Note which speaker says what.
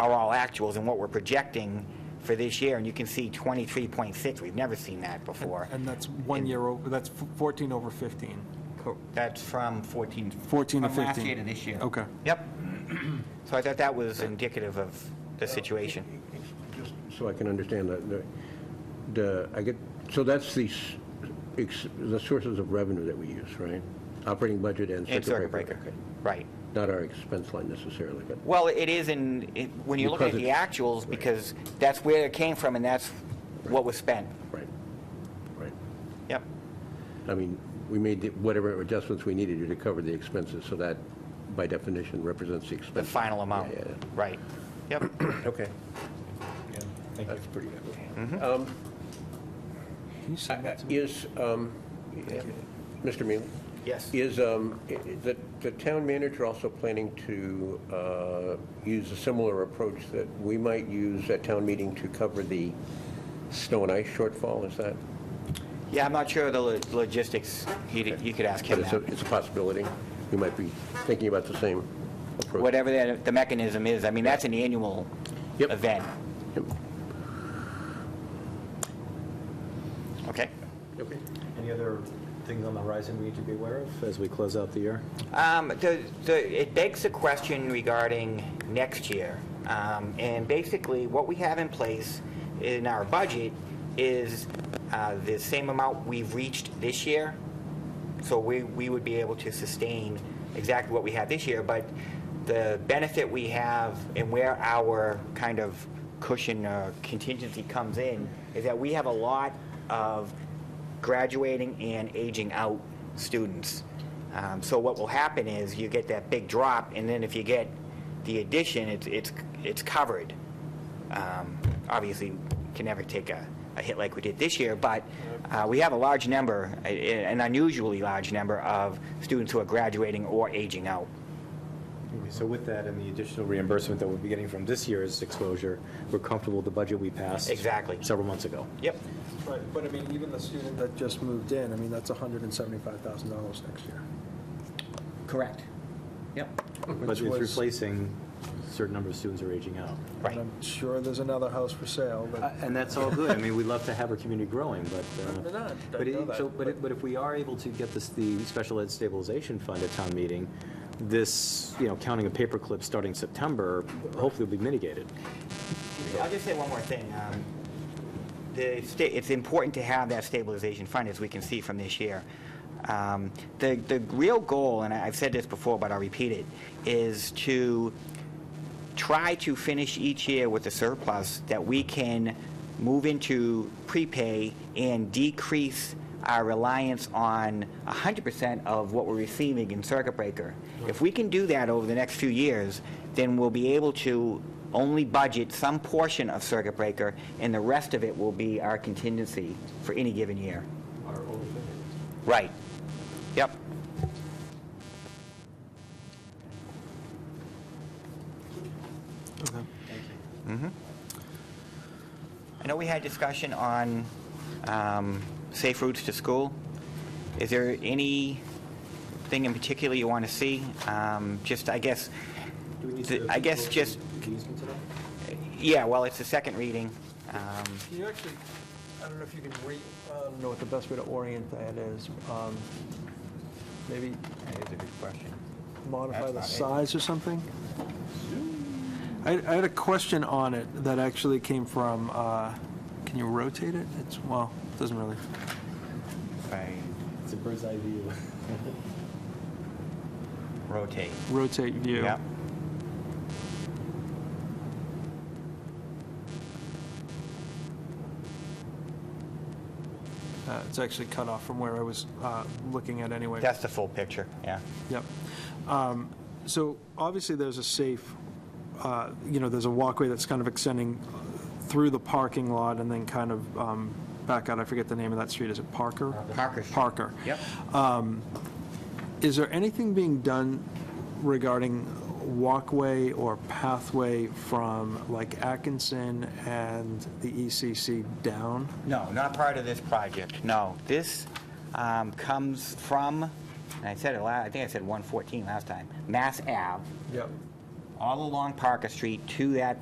Speaker 1: are all actuals and what we're projecting for this year, and you can see 23.6. We've never seen that before.
Speaker 2: And that's one year, over. that's 14 over 15.
Speaker 1: That's from 14.
Speaker 2: 14 to
Speaker 1: From last
Speaker 2: 15.
Speaker 1: year to this year.
Speaker 2: Okay.
Speaker 1: Yep. So I thought that was indicative of the situation.
Speaker 3: So I can understand that, the- the, I get, so that's the, s- ex- the sources of revenue that we use, right? Operating budget and
Speaker 1: And
Speaker 3: circuit breaker. Okay.
Speaker 1: Right.
Speaker 3: Not our expense line necessarily, but,
Speaker 1: Well, it is in, it- when you look at
Speaker 3: Because
Speaker 1: the
Speaker 3: it's-
Speaker 1: actuals, because that's where it came from and that's what was spent.
Speaker 3: right, right.
Speaker 1: Yep.
Speaker 3: I mean, we made the- whatever adjustments we needed to to cover the expenses, so that by definition represents the
Speaker 1: The
Speaker 3: expense.
Speaker 1: final amount.
Speaker 3: Yeah, yeah, yeah.
Speaker 1: Right. Yep.
Speaker 3: Okay. That's pretty good. Um,
Speaker 2: Can you
Speaker 3: Mm-hmm.
Speaker 2: send that to me?
Speaker 3: Uh, Is, um, Mr. Mealy?
Speaker 1: Yes.
Speaker 3: Is um, i- i- the the town manager also planning to uh, use a similar approach that we might use at town meeting to cover the snow and ice shortfall? Is that?
Speaker 1: Yeah, I'm not sure of the lo- logistics. You'd- You could ask
Speaker 3: But
Speaker 1: him
Speaker 3: it's a
Speaker 1: that.
Speaker 3: it's a possibility. We might be thinking about the same approach.
Speaker 1: Whatever that- the mechanism is, I mean, that's an annual
Speaker 3: Yep.
Speaker 1: event.
Speaker 3: Yep.
Speaker 1: Okay.
Speaker 3: Okay.
Speaker 4: Any other things on the horizon we need to be aware of as we close out the year?
Speaker 1: Um, the, the, it begs the question regarding next year. Um, and basically, what we have in place in our budget is uh, the same amount we've reached this year. So we, we would be able to sustain exactly what we have this year, but the benefit we have and where our kind of cushion uh, contingency comes in is that we have a lot of graduating and aging out students. Um, So what will happen is you get that big drop, and then if you get the addition, it's, it's, it's covered. Um, Obviously, can never take a, a hit like we did this year, but uh, we have a large number, a- a- an unusually large number of students who are graduating or aging out.
Speaker 4: Okay, So with that and the additional reimbursement that we'll be getting from this year's exposure, we're comfortable with the budget we passed.
Speaker 1: Exactly.
Speaker 4: Several months ago.
Speaker 1: Yep.
Speaker 2: Right, but I mean, even the student that just moved in, I mean, that's $175,000 next year.
Speaker 1: Correct. Yep.
Speaker 4: But it's
Speaker 2: was-
Speaker 4: replacing certain number of students who are aging out.
Speaker 1: Right.
Speaker 5: I'm sure there's another house for sale,
Speaker 4: Uh,
Speaker 5: but
Speaker 4: And that's all good. I mean, we'd love to have our community growing, but. uh,
Speaker 5: We're not. I
Speaker 4: but
Speaker 5: know
Speaker 4: it-
Speaker 5: that,
Speaker 4: so- But it- but if we are able to get this, the special ed stabilization fund at town meeting, this, you know, counting of paper clips starting September, hopefully will be mitigated.
Speaker 1: I'll just say one more thing. Um, The, sta- it's important to have that stabilization fund, as we can see from this year. Um, The, the real goal, and I- I've said this before, but I'll repeat it, is to try to finish each year with a surplus that we can move into prepay and decrease our reliance on 100% of what we're receiving in circuit breaker. If we can do that over the next few years, then we'll be able to only budget some portion of circuit breaker, and the rest of it will be our contingency for any given year. Right. Yep. I know we had discussion on um, safe routes to school. Is there anything in particular you want to see? Um, Just, I guess,
Speaker 4: Do we need
Speaker 1: th-
Speaker 4: to
Speaker 1: I guess
Speaker 4: vote
Speaker 1: just,
Speaker 4: on these from today?
Speaker 1: yeah, well, it's the second reading. Um,
Speaker 2: Can you actually, I don't know if you can re, I don't know what the best way to orient that is. Um, Maybe
Speaker 1: That is a good question.
Speaker 2: modify the
Speaker 1: That's
Speaker 2: size or something? I, I had a question on it that actually came from, uh, can you rotate it? It's, well, it doesn't really,
Speaker 1: Right.
Speaker 4: It's a bird's eye view.
Speaker 1: Rotate.
Speaker 2: rotate view.
Speaker 1: Yeah.
Speaker 2: Uh, It's actually cut off from where I was uh, looking at anyway.
Speaker 1: That's the full picture, yeah.
Speaker 2: Yep. Um, So obviously, there's a safe, uh, you know, there's a walkway that's kind of extending through the parking lot and then kind of um, back out. I forget the name of that street. Is it Parker?
Speaker 1: Parker Street.
Speaker 2: Parker.
Speaker 1: Yep.
Speaker 2: Is there anything being done regarding walkway or pathway from like Atkinson and the ECC down?
Speaker 1: No, not part of this project, no. This um, comes from, and I said it last, I think I said 114 last time, Mass Ave,
Speaker 2: Yep.
Speaker 1: all along Parker Street to that